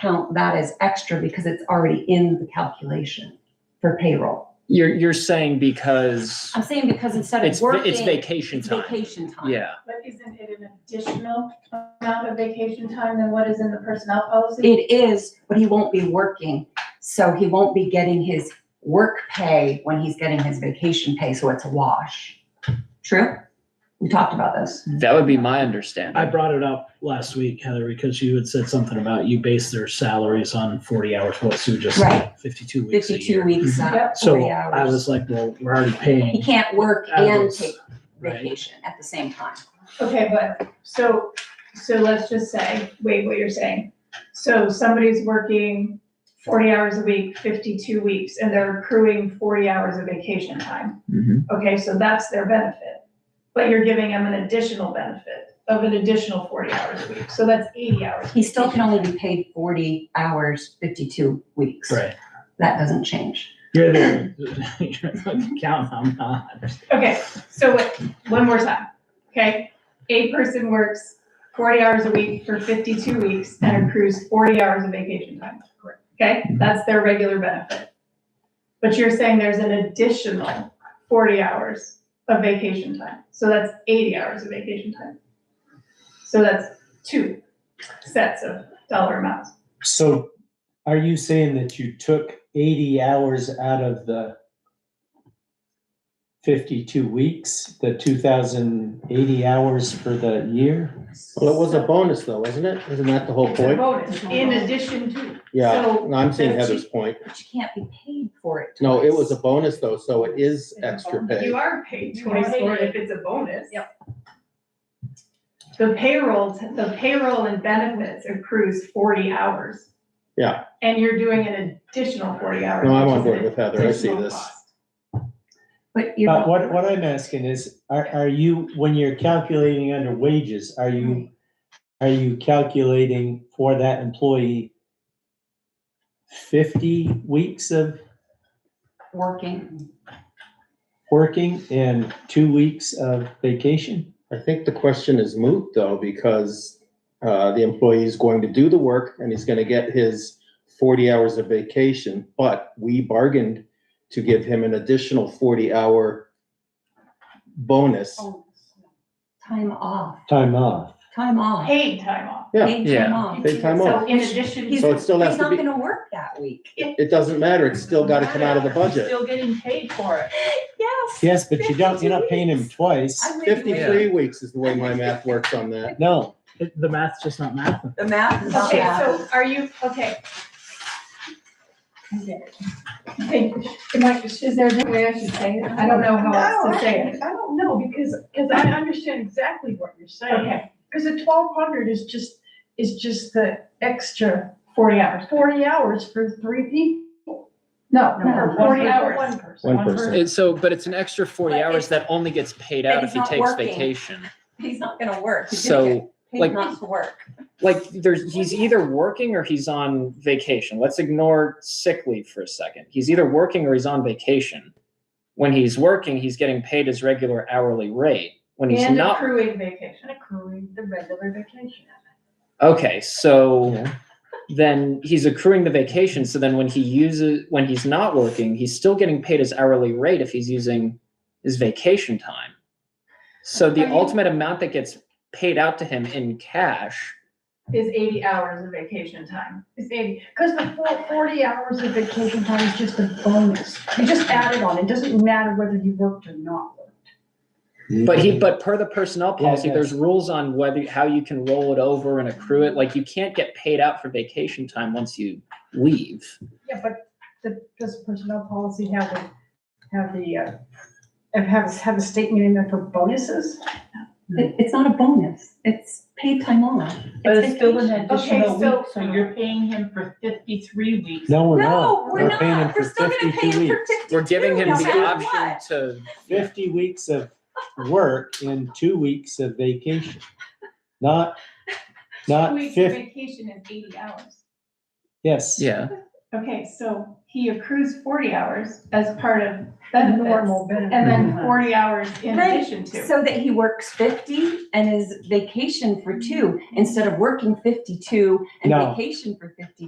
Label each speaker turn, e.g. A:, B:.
A: count that as extra because it's already in the calculation for payroll.
B: You're, you're saying because
A: I'm saying because instead
B: it's,
A: of
B: va-
A: working,
B: it's vacation
A: it's
B: time.
A: vacation time.
B: Yeah,
C: But isn't it an additional amount of vacation time than what is in the personnel policy?
A: It is, but he won't be working, so he won't be getting his work pay when he's getting his vacation pay, so it's a wash. True? We talked about this.
B: that would be my
D: I
B: understanding.
D: brought it up last week, Heather, because you had said something about you base their salaries on forty hours, what Sue just
A: Right.
D: said, fifty-two weeks a
A: Fifty-two
D: year. Mm-hmm.
A: weeks, uh,
C: Yep.
D: So
A: forty
D: I
A: hours.
D: was like, well, we're already
A: He
D: paying.
A: can't work and
D: hours,
A: take
D: Right,
A: vacation at the same time.
C: Okay, but, so, so let's just say, wait, what you're saying. So somebody's working forty hours a week, fifty-two weeks, and they're accruing forty hours of vacation time.
B: Mhm.
C: Okay, so that's their benefit. But you're giving them an additional benefit of an additional forty hours a week, so that's eighty hours.
A: He still can only be paid forty hours, fifty-two weeks.
D: right.
A: That doesn't change.
D: You're the, you're the accountant, I'm not.
C: Okay, so wait, one more time, okay? A person works forty hours a week for fifty-two weeks and accrues forty hours of vacation time. Okay, that's their regular benefit. But you're saying there's an additional forty hours of vacation time, so that's eighty hours of vacation time. So that's two sets of dollar amounts.
E: So are you saying that you took eighty hours out of the fifty-two weeks, the two thousand eighty hours for the year?
F: Well, it was a bonus though, wasn't it? Isn't that the whole
C: It's a
F: point?
C: bonus, in addition to,
F: Yeah,
C: so-
F: no, I'm seeing
A: so she-
F: Heather's point.
A: But you can't be paid for it.
F: No, it
A: twice.
F: was a bonus though, so it is extra pay.
C: oh, You are paid twenty-four if it's a bonus. Yep. The payroll, the payroll and benefits accrues forty hours.
F: Yeah.
C: And you're doing an additional forty hours.
F: No, I'm
C: which
F: on
C: is
F: board
C: an
F: with Heather. I see
C: additional
F: this.
C: cost.
A: But you're.
E: But Uh, what, what I'm asking is, are, are you, when you're calculating under wages, are you, are you calculating for that employee fifty weeks of
A: Working.
E: working and two weeks of vacation?
F: I think the question is moot though, because uh, the employee is going to do the work and he's gonna get his forty hours of vacation, but we bargained to give him an additional forty hour bonus.
A: Time off,
E: Time off?
A: time off.
C: Paid time off.
F: Yeah.
A: Paid time
B: Yeah.
A: off.
F: Paid time off.
C: So in addition.
A: He's,
F: So
C: to-
F: it still has
A: he's
F: to
A: not
F: be-
A: gonna work that week.
F: It doesn't matter, it's still gotta come out of the budget.
G: Still getting paid for it.
A: Yes.
E: Yes, but you don't, you're not paying
A: 52
E: him
A: weeks.
E: twice.
A: I'm with you.
F: Fifty-three weeks is the way my math works on that.
E: No,
D: It- The math's just not math.
A: The math is not
C: Okay,
A: math.
C: so are you, okay. Okay, am I- is there a way I should say it? I don't know how else to say it.
G: I don't know, because, because I understand exactly what you're saying.
C: Okay,
G: Because the twelve hundred is just, is just the extra
C: forty hours.
G: forty hours for three people. No,
A: No,
G: for
A: one
G: forty
C: person.
G: hours. One person.
F: One person.
B: And so, but it's an extra forty
A: But
B: hours
A: it's-
B: that only gets paid
A: but
B: out
A: he's
B: if he
A: not
B: takes
A: working.
B: vacation.
A: He's not gonna work. He's gonna
B: So,
A: get
B: like-
A: Paid not to work.
B: like, there's, he's either working or he's on vacation. Let's ignore sick leave for a second. He's either working or he's on vacation. When he's working, he's getting paid his regular hourly rate. When he's
C: And
B: not,
C: accruing vacation.
G: And accruing the regular vacation.
B: okay, so then he's accruing the vacation. So then when he uses, when he's not working, he's still getting paid his hourly rate if he's using his vacation time. So the
C: I mean-
B: ultimate amount that gets paid out to him in cash
C: is eighty hours of vacation time.
G: It's eighty, because the full forty hours of vacation time is just a bonus. You just add it on. It doesn't matter whether you worked or not.
B: But he, but per the personnel
E: Yeah,
B: policy,
E: yeah.
B: there's rules on whether, how you can roll it over and accrue it. Like you can't get paid out for vacation time once you leave.
G: Yeah, but the, does personnel policy have the, have the, uh, have- have, have a statement in there for bonuses?
A: It, it's not a bonus. It's paid time off.
H: But it's still an
A: vacation.
H: additional
C: Okay, so-
H: week, so you're paying him for fifty-three weeks.
E: Oh, no, we're
A: No,
E: not.
A: we're
E: paying him
A: not.
E: for
A: We're still gonna pay
E: 52
A: him for
E: weeks.
A: fifty-two.
B: We're giving him
A: no
B: the
A: matter
B: option
A: what.
B: to,
E: Fifty weeks of work and two weeks of vacation. Not,
C: Two
E: not
C: weeks of
E: fifty,
C: vacation is eighty hours.
E: yes.
B: yeah.
C: Okay, so he accrues forty hours as part of
G: That
C: benefits.
G: normal benefit.
C: And then forty hours in
A: Right,
C: addition to.
A: So that he works fifty and is vacation for two instead of working fifty-two and
E: No.
A: vacation for fifty-two.